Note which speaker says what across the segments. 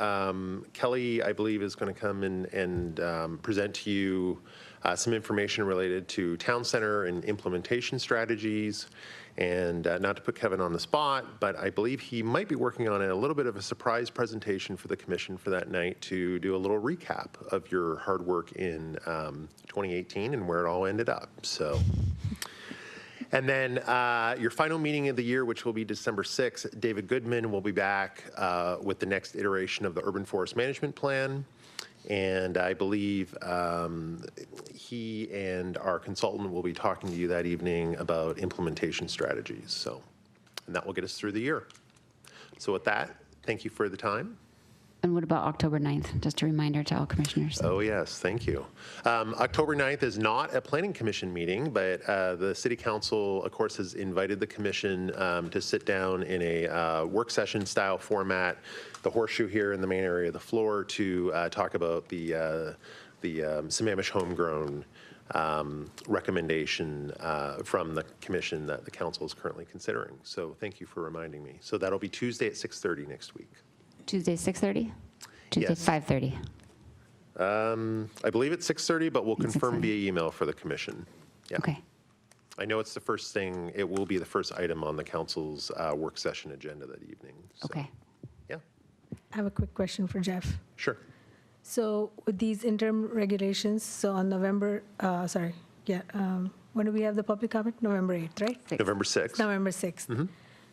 Speaker 1: Um, Kelly, I believe, is going to come and, and um, present to you uh, some information related to town center and implementation strategies. And uh, not to put Kevin on the spot, but I believe he might be working on a little bit of a surprise presentation for the commission for that night to do a little recap of your hard work in um, 2018 and where it all ended up. So. And then uh, your final meeting of the year, which will be December 6th, David Goodman will be back uh, with the next iteration of the Urban Forest Management Plan. And I believe um, he and our consultant will be talking to you that evening about implementation strategies. So, and that will get us through the year. So, with that, thank you for the time.
Speaker 2: And what about October 9th? Just a reminder to all commissioners.
Speaker 1: Oh, yes, thank you. Um, October 9th is not a planning commission meeting, but uh, the city council, of course, has invited the commission um, to sit down in a uh, work session style format, the horseshoe here in the main area of the floor, to uh, talk about the, uh, the um, Sammamish homegrown um, recommendation uh, from the commission that the council is currently considering. So thank you for reminding me. So that'll be Tuesday at 6:30 next week.
Speaker 2: Tuesday, 6:30? Tuesday,
Speaker 1: Yes.
Speaker 2: 5:30?
Speaker 1: I believe it's 6:30, but we'll
Speaker 2: It's
Speaker 1: confirm
Speaker 2: 6:30.
Speaker 1: via email for the commission. Yeah.
Speaker 2: Okay.
Speaker 1: I know it's the first thing, it will be the first item on the council's uh, work session agenda that evening. so-
Speaker 2: Okay.
Speaker 1: Yeah,
Speaker 3: I have a quick question for Jeff.
Speaker 1: sure.
Speaker 3: So with these interim regulations, so on November, uh, sorry, yeah, um, when do we have the public comment? November 8th, right?
Speaker 2: Six.
Speaker 1: November 6th.
Speaker 3: November 6th.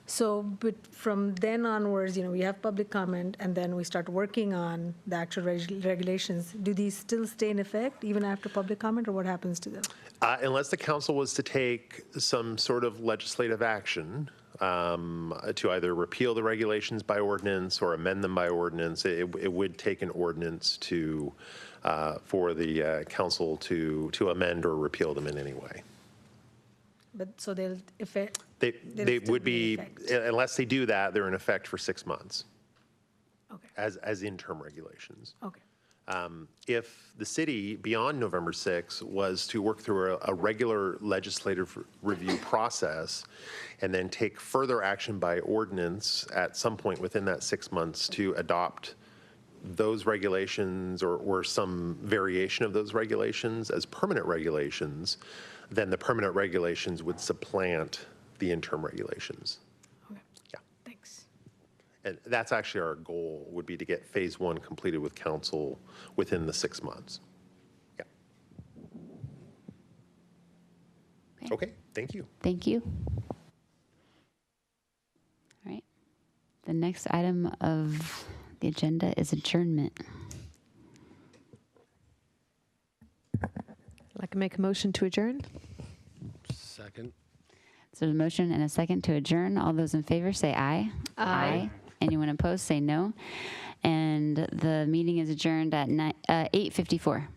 Speaker 3: So, but from then onwards, you know, we have public comment, and then we start working on the actual reg- regulations. Do these still stay in effect even after public comment, or what happens to them?
Speaker 1: Uh, Unless the council was to take some sort of legislative action um, to either repeal the regulations by ordinance or amend them by ordinance, it it would take an ordinance to, uh, for the uh, council to, to amend or repeal them in any way.
Speaker 3: But, so they'll, if it,
Speaker 1: They,
Speaker 3: They'll
Speaker 1: they
Speaker 3: still
Speaker 1: would
Speaker 3: be
Speaker 1: be,
Speaker 3: in effect.
Speaker 1: unless they do that, they're in effect for six months
Speaker 3: okay,
Speaker 1: as, as interim regulations.
Speaker 3: okay.
Speaker 1: Um, If the city, beyond November 6, was to work through a, a regular legislative review process and then take further action by ordinance at some point within that six months to adopt those regulations or, or some variation of those regulations as permanent regulations, then the permanent regulations would supplant the interim regulations.
Speaker 3: Okay.
Speaker 1: Yeah.
Speaker 3: Thanks.
Speaker 1: And that's actually our goal, would be to get Phase One completed with council within the six months. Yeah.
Speaker 2: Okay.
Speaker 1: Okay, thank you.
Speaker 2: Thank you. All right. The next item of the agenda is adjournment.
Speaker 4: I'd Like to make a motion to adjourn?
Speaker 5: Second.
Speaker 2: So there's a motion and a second to adjourn. All those in favor say aye. Aye. Anyone opposed, say no. And the meeting is adjourned at ni- uh, 8:54.